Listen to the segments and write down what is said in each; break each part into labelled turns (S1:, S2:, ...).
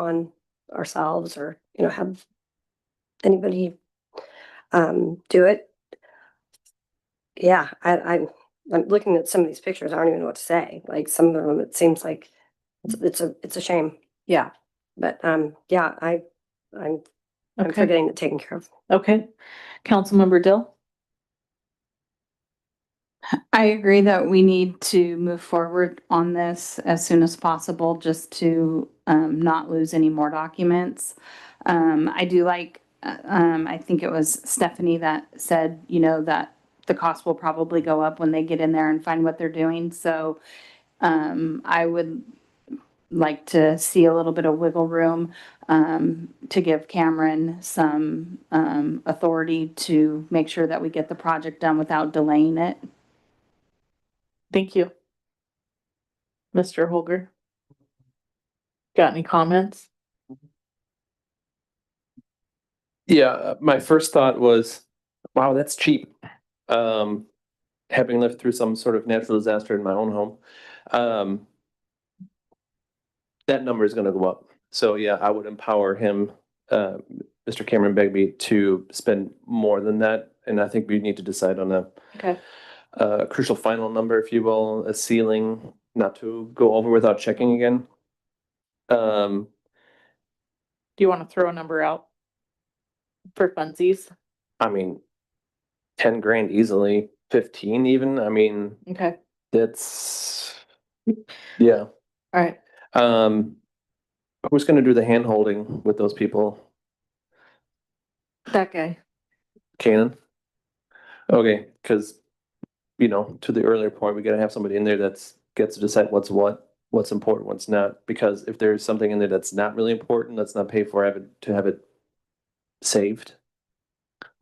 S1: on ourselves or, you know, have anybody um, do it. Yeah, I, I'm, I'm looking at some of these pictures. I don't even know what to say. Like some of them, it seems like it's, it's a, it's a shame. Yeah. But, um, yeah, I, I'm, I'm
S2: Okay,
S1: forgetting it taken care of.
S2: okay. Councilmember Dill?
S3: I agree that we need to move forward on this as soon as possible, just to um, not lose any more documents. Um, I do like, uh, um, I think it was Stephanie that said, you know, that the cost will probably go up when they get in there and find what they're doing. So um, I would like to see a little bit of wiggle room um, to give Cameron some um, authority to make sure that we get the project done without delaying it.
S2: Thank you. Mr. Holger? Got any comments?
S4: Yeah, uh, my first thought was, wow, that's cheap. Um, having lived through some sort of natural disaster in my own home. Um, that number is gonna go up. So yeah, I would empower him, uh, Mr. Cameron Begbie to spend more than that. And I think we need to decide on a
S2: Okay.
S4: a crucial final number, if you will, a ceiling, not to go over without checking again. Um,
S2: Do you want to throw a number out? For funsies?
S4: I mean, ten grand easily, fifteen even. I mean,
S2: Okay,
S4: that's yeah.
S2: all right.
S4: Um, who's going to do the hand holding with those people?
S2: That guy.
S4: Canon. Okay, because you know, to the earlier point, we got to have somebody in there that's gets to decide what's what, what's important, what's not. Because if there's something in there that's not really important, let's not pay for it to have it saved.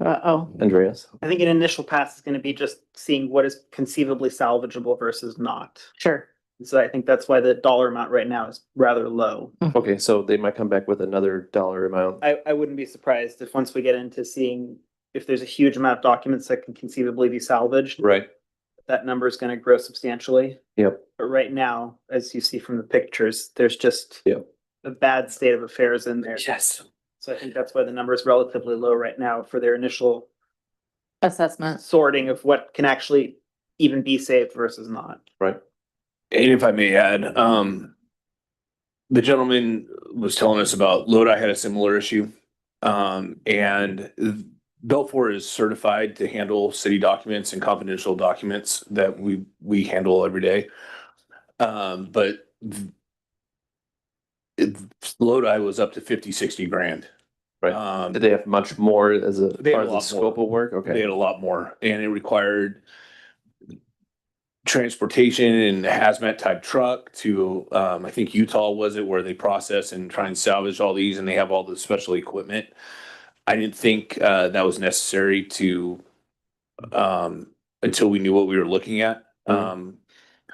S2: Uh-oh.
S4: Andreas.
S5: I think an initial pass is gonna be just seeing what is conceivably salvageable versus not.
S2: Sure.
S5: So I think that's why the dollar amount right now is rather low.
S4: Okay, so they might come back with another dollar amount.
S5: I, I wouldn't be surprised if once we get into seeing if there's a huge amount of documents that can conceivably be salvaged,
S4: Right.
S5: that number is gonna grow substantially.
S4: Yep.
S5: But right now, as you see from the pictures, there's just
S4: Yeah.
S5: a bad state of affairs in there.
S4: Yes.
S5: So I think that's why the number is relatively low right now for their initial
S2: Assessment.
S5: sorting of what can actually even be saved versus not.
S6: And if I may add, um, the gentleman was telling us about Lodi had a similar issue. Um, and Belfour is certified to handle city documents and confidential documents that we, we handle every day. Um, but th- it- Lodi was up to 50, 60 grand.
S4: Right.
S6: Um,
S4: Did they have much more as a
S6: They
S4: part
S6: had a
S4: of the
S6: lot
S4: scope
S6: more.
S4: of work?
S6: they
S4: Okay.
S6: had a lot more and it required transportation and hazmat type truck to, um, I think Utah was it where they process and try and salvage all these and they have all the special equipment. I didn't think, uh, that was necessary to, um, until we knew what we were looking at.
S4: Mhm.
S6: Um,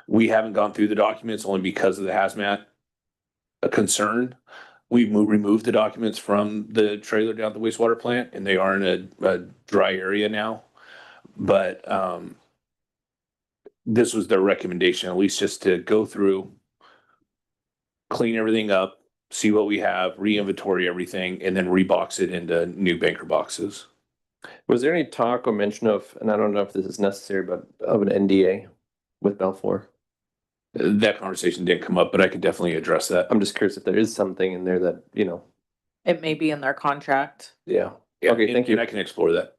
S6: we haven't gone through the documents only because of the hazmat uh, concern. We mo- removed the documents from the trailer down at the wastewater plant and they are in a, a dry area now. But, um, this was their recommendation, at least just to go through, clean everything up, see what we have, re-inventory everything, and then rebox it into new banker boxes.
S4: Was there any talk or mention of, and I don't know if this is necessary, but of an NDA with Belfour?
S6: Uh, That conversation didn't come up, but I could definitely address that.
S4: I'm just curious if there is something in there that, you know,
S2: It may be in their contract.
S4: yeah.
S6: Yeah,
S4: Okay,
S6: and-
S4: thank you.
S6: And I can explore that.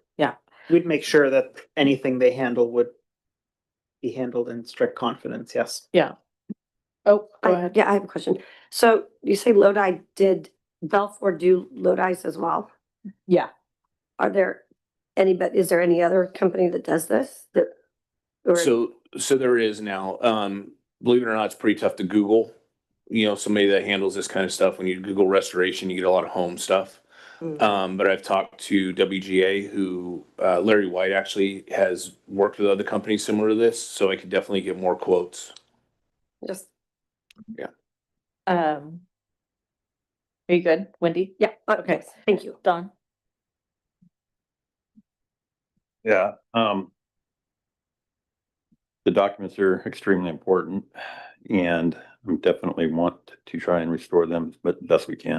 S5: We'd make sure that anything they handle would be handled in strict confidence, yes.
S2: Oh, go
S1: I,
S2: ahead.
S1: yeah, I have a question. So you say Lodi did, Belfour do Lodi's as well?
S2: Yeah.
S1: Are there any, but is there any other company that does this? That or-
S6: So, so there is now, um, believe it or not, it's pretty tough to Google. You know, somebody that handles this kind of stuff, when you Google restoration, you get a lot of home stuff.
S1: Mm.
S6: Um, but I've talked to WGA, who, uh, Larry White actually has worked with other companies similar to this, so I could definitely get more quotes.
S1: Just,
S2: Um. Are you good, Wendy?
S1: yeah, uh,
S2: Okay.
S1: okay, thank you.
S2: Don?
S7: Yeah, um. The documents are extremely important and I definitely want to try and restore them, but best we can.